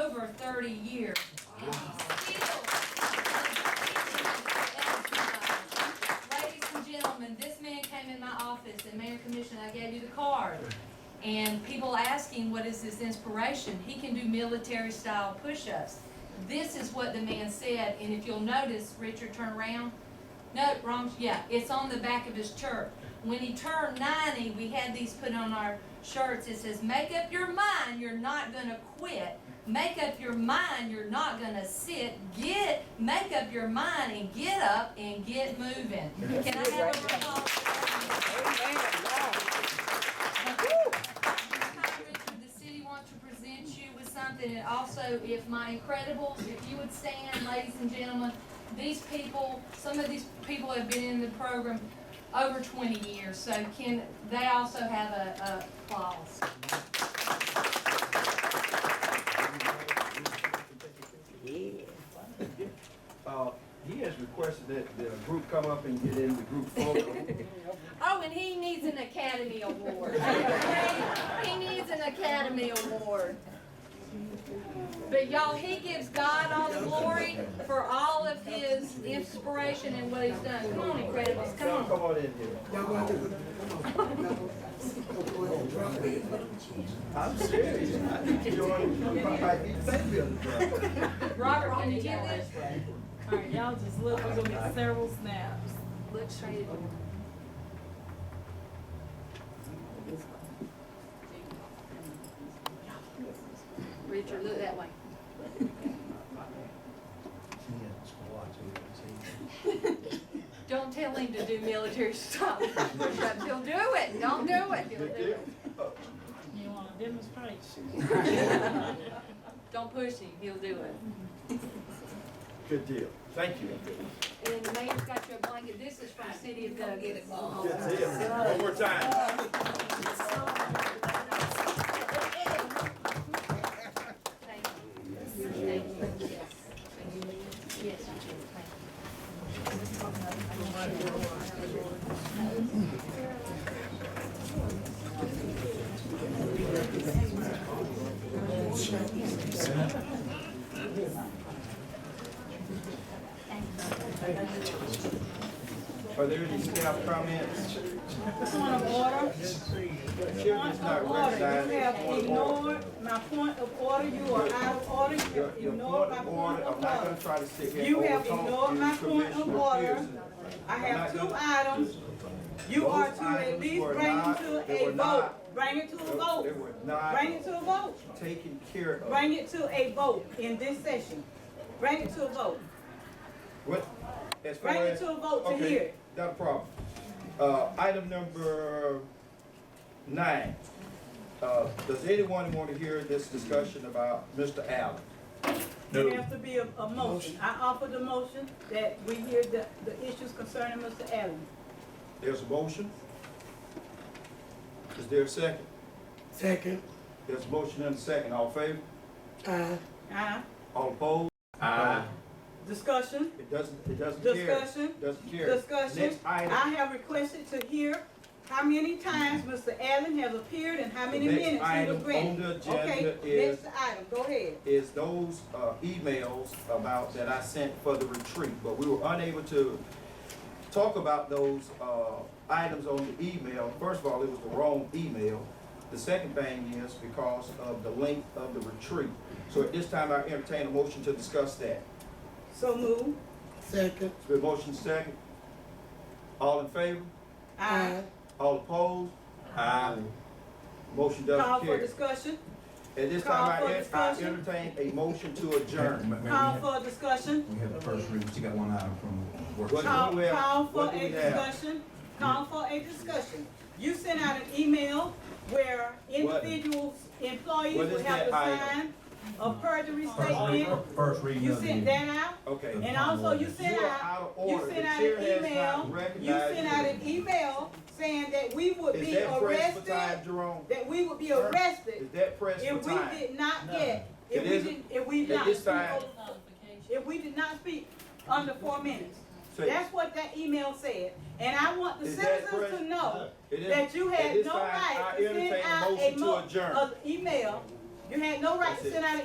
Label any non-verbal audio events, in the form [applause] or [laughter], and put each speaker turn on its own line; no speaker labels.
over thirty years. And he's still- Ladies and gentlemen, this man came in my office and Mayor Commissioner, I gave you the card. And people asking, what is this inspiration? He can do military style push-ups. This is what the man said, and if you'll notice, Richard, turn around. No, wrong, yeah, it's on the back of his shirt. When he turned ninety, we had these put on our shirts. It says, make up your mind, you're not gonna quit. Make up your mind, you're not gonna sit. Get, make up your mind and get up and get moving. Can I have a round of applause? for that? Richard, the city wants to present you with something, and also if my Incredibles, if you would stand, ladies and gentlemen, these people, some of these people have been in the program over twenty years, so can, they also have a, a applause.
Uh, he has requested that the group come up and get in the group photo.
Oh, and he needs an Academy [laughs] Award. He needs an Academy Award. But y'all, he gives God all the glory for all of his inspiration and what he's done. Come on, Incredibles, come
Y'all
on.
come on in here. I'm serious. I think you might be thinking
Robert, can you get this?
Alright, y'all just look, we're gonna get several snaps.
Look straight at me. Richard, look that way. Don't tell him to do military stuff. push-ups. He'll do it. Don't do it. He'll do
of
it.
You wanna demonstrate?
Don't push him. He'll do it.
Good deal. Thank you.
And then the mayor's got your blanket. This is from City of Douglas.
Good deal. One more time.
Thank you. Thank you. Yes. Yes, Richard, thank you.
Are there any staff comments?
Point of order,
Chairman's
point
not
of order, you have
recognized.
ignored my point of order, you are out of order, you
Your
have
your
ignored
point
my point
of order, I'm
of
not gonna
order.
try to sit here
You
and
have
overtalk
ignored my
you,
point of
Commissioner
order.
Pearson.
I have
I'm not
two
gonna-
items, you
Those
are to at
items
least
were
bring it
not-
to
they were
a vote,
not-
bring it to a
They
vote,
were not
bring it to a vote,
taken care of.
bring it to a vote in this session, bring it to a vote.
What? As far
Bring it
as-
to a vote to
okay,
hear it.
Not a problem. Uh, item number nine. Uh, does anyone want to hear this discussion about Mr. Allen?
There has to be a, a motion. I offered a motion that we hear the, the issues concerning Mr. Allen.
There's a motion? Is there a second?
Second,
There's a motion and a second. All in favor?
aye.
Aye.
All opposed? Aye.
Discussion,
It doesn't, it doesn't carry.
discussion,
Doesn't carry.
discussion.
Next item,
I have requested to hear how many times Mr. Allen has appeared and how many
The next
minutes he
item
was
on
granted.
the
Okay,
agenda is-
next item, go ahead.
is those, uh, emails about, that I sent for the retreat, but we were unable to talk about those, uh, items on the email. First of all, it was the wrong email. The second thing is because of the length of the retreat. So at this time, I entertain a motion to discuss that.
So move.
Second,
It's been motion second. All in favor?
Aye.
All opposed? Aye. Motion
Call
doesn't
for
carry.
discussion,
At this
Call
time, I
for
en- I
discussion.
entertain a motion to adjourn.
call
Ma'am, we have-
for a discussion,
We have the first read, but you got one item from work.
What-
call,
do we have?
call for
What do
a
we have?
discussion, call for a discussion. You sent out an email where
What-
individuals, employees
what
would
is
have to
that
sign
item?
a perjury
First read-
statement.
First reading
You
of the.
sent that out,
Okay.
and also you
You
sent
are
out,
out of order.
sent
The
out
chair
an
has not
email. you
recognized
sent out an email saying that we would
Is
be
that press for
arrested,
time, Jerome?
that we would be
Sir?
arrested
Is that press for
if we
time?
did not get, if
It
we
isn't.
didn't, if we
At
not
this time,
if we did not speak under four minutes.
so it
That's what that email said, and I want the
Is that
citizens to
correct?
know
is,
that you
at
had
this
no
time,
right
I
to send
entertain a
out a
motion to
mo-
adjourn.
a email. You had no right to
That's it.
send out an